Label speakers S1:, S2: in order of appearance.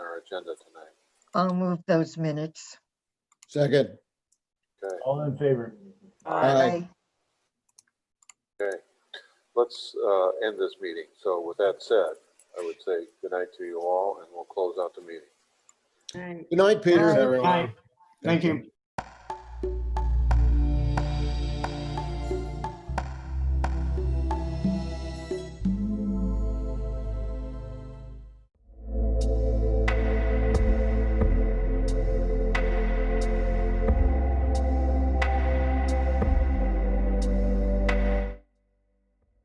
S1: agenda tonight.
S2: I'll move those minutes.
S3: Second,
S1: Okay,
S4: All in favor?
S3: Aye.
S1: okay. Let's uh, end this meeting. So with that said, I would say good night to you all, and we'll close out the meeting.
S5: All right.
S3: good night, Peter.
S2: Bye.
S4: Aye. Thank you.